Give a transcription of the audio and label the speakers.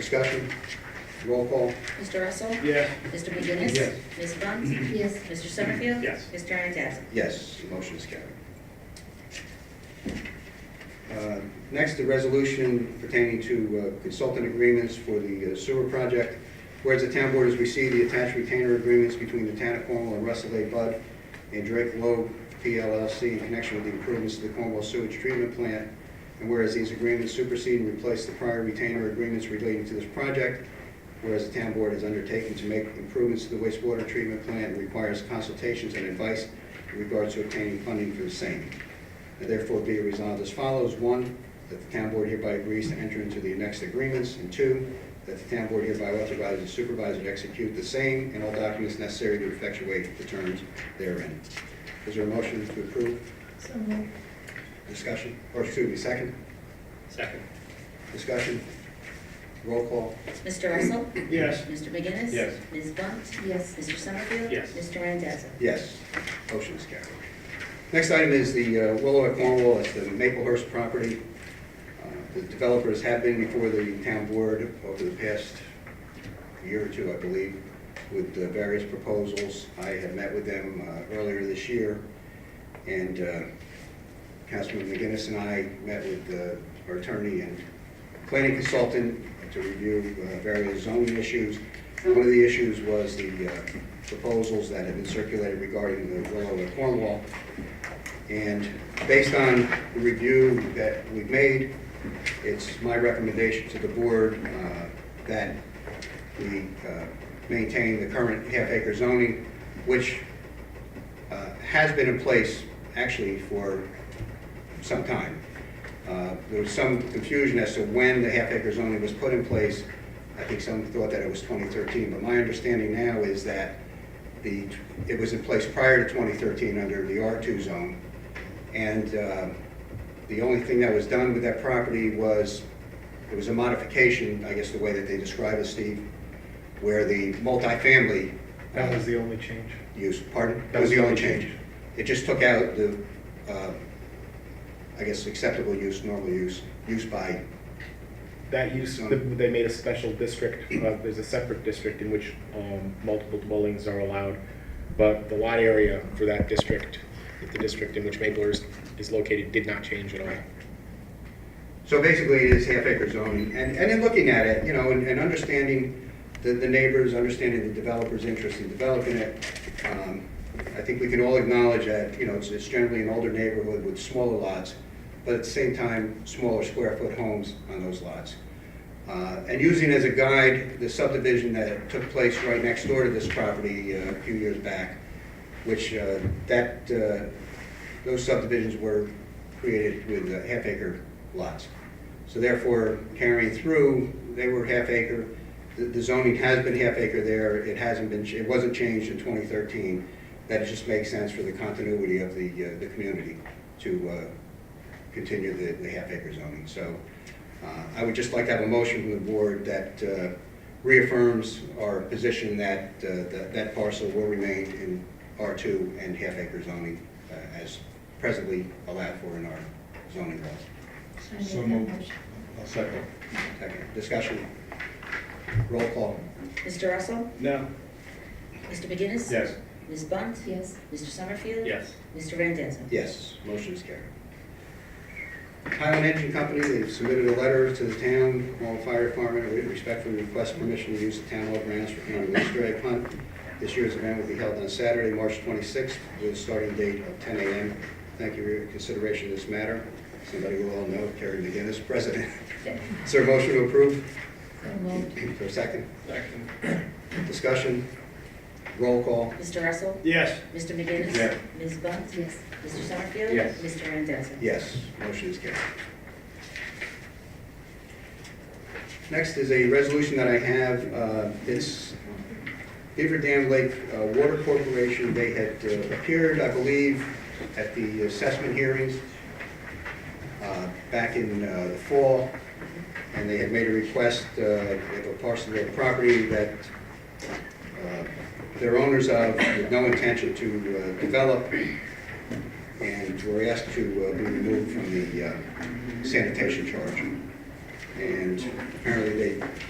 Speaker 1: Discussion, roll call,
Speaker 2: Mr. Russell?
Speaker 3: Yes.
Speaker 2: Mr. McGinnis?
Speaker 1: Yes.
Speaker 2: Ms. Bunt? Yes. Mr. Summerfield?
Speaker 3: Yes.
Speaker 2: Mr. Randazzo?
Speaker 1: yes, the motion is carried. Uh, Next, the resolution pertaining to uh, consultant agreements for the uh, sewer project. Whereas the town board has received the attached retainer agreements between the town of Cornwall and Russell A. Budd and Drake Loeb PLLC in connection with the improvements to the Cornwall sewage treatment plant. And whereas these agreements supersede and replace the prior retainer agreements relating to this project, whereas the town board has undertaken to make improvements to the wastewater treatment plant and requires consultations and advice in regards to obtaining funding for the same. Now Therefore, be it resolved as follows. One, that the town board hereby agrees to enter into the annexed agreements. And two, that the town board hereby authorizes the supervisor to execute the same and all documents necessary to effectuate the terms therein. Is there a motion to approve?
Speaker 4: So moved.
Speaker 1: Discussion, or excuse me, second?
Speaker 3: Second.
Speaker 1: Discussion? Roll call?
Speaker 2: Mr. Russell?
Speaker 3: Yes.
Speaker 2: Mr. McGinnis?
Speaker 3: Yes.
Speaker 2: Ms. Bunt?
Speaker 4: Yes.
Speaker 2: Mr. Summerfield?
Speaker 3: Yes.
Speaker 2: Mr. Randazzo?
Speaker 1: Yes, motion is carried. Next item is the uh, Willow at Cornwall, it's the Maplehurst property. Uh, The developers have been before the town board over the past year or two, I believe, with uh, various proposals. I had met with them uh, earlier this year, and uh, Councilman McGinnis and I met with uh, our attorney and planning consultant to review uh, various zoning issues. One of the issues was the uh, proposals that have been circulated regarding the Willow and Cornwall. And based on the review that we've made, it's my recommendation to the board uh, that we uh, maintain the current half-acre zoning, which uh, has been in place actually for some time. Uh, There was some confusion as to when the half-acre zoning was put in place. I think some thought that it was 2013, but my understanding now is that the, it was in place prior to 2013 under the R2 zone. And uh, the only thing that was done with that property was, it was a modification, I guess the way that they describe it, Steve, where the multifamily. uh,
Speaker 5: That was the only change.
Speaker 1: use, pardon?
Speaker 5: That was the only change.
Speaker 1: It just took out the, uh, I guess, acceptable use, normal use, use by,
Speaker 5: That use, th- they made a special district, uh, there's a separate district in which um, multiple dwellings are allowed, but the lot area for that district, the district in which Maplehurst is located, did not change at all.
Speaker 1: so basically it is half acre zoning. And, and in looking at it, you know, and, and understanding the, the neighbors, understanding the developer's interest in developing it, um, I think we can all acknowledge that, you know, it's, it's generally an older neighborhood with smaller lots, but at the same time, smaller square foot homes on those lots. Uh, And using as a guide the subdivision that took place right next door to this property uh, a few years back, which uh, that, uh, those subdivisions were created with uh, half acre lots. So therefore, carrying through, they were half acre. The- The zoning has been half acre there. It hasn't been, ch- it wasn't changed in 2013. That just makes sense for the continuity of the, uh, the community to uh, continue the, the half acre zoning. So uh, I would just like to have a motion from the board that uh, reaffirms our position that, uh, that that parcel will remain in R2 and half acre zoning uh, as presently allowed for in our zoning laws.
Speaker 4: So moved.
Speaker 1: Second, discussion, roll call,
Speaker 2: Mr. Russell?
Speaker 3: No.
Speaker 2: Mr. McGinnis?
Speaker 3: Yes.
Speaker 2: Ms. Bunt?
Speaker 4: Yes.
Speaker 2: Mr. Summerfield?
Speaker 3: Yes.
Speaker 2: Mr. Randazzo?
Speaker 1: yes, motion is carried. Highland Engine Company, they've submitted a letter to the town, Cornwall Fire Department, we respectfully request permission to use the town hall grounds for county Easter egg hunt. This year's event will be held on Saturday, March 26th, with a starting date of 10 a.m. Thank you for your consideration of this matter. Somebody we all know, Terry McGinnis, President. Is there a motion to approve?
Speaker 4: So moved.
Speaker 1: For a second,
Speaker 3: Second.
Speaker 1: discussion, roll call,
Speaker 2: Mr. Russell?
Speaker 3: Yes.
Speaker 2: Mr. McGinnis?
Speaker 3: Yes.
Speaker 2: Ms. Bunt?
Speaker 4: Yes.
Speaker 2: Mr. Summerfield?
Speaker 3: Yes.
Speaker 2: Mr. Randazzo?
Speaker 1: Yes, motion is carried. Next is a resolution that I have, uh, it's Beaver Dam Lake uh, Water Corporation, they had uh, appeared, I believe, at the assessment hearings uh, back in uh, the fall, and they had made a request, uh, they have a parcel of property that uh, they're owners of, with no intention to uh, develop, and were asked to uh, be removed from the uh, sanitation charge. And apparently they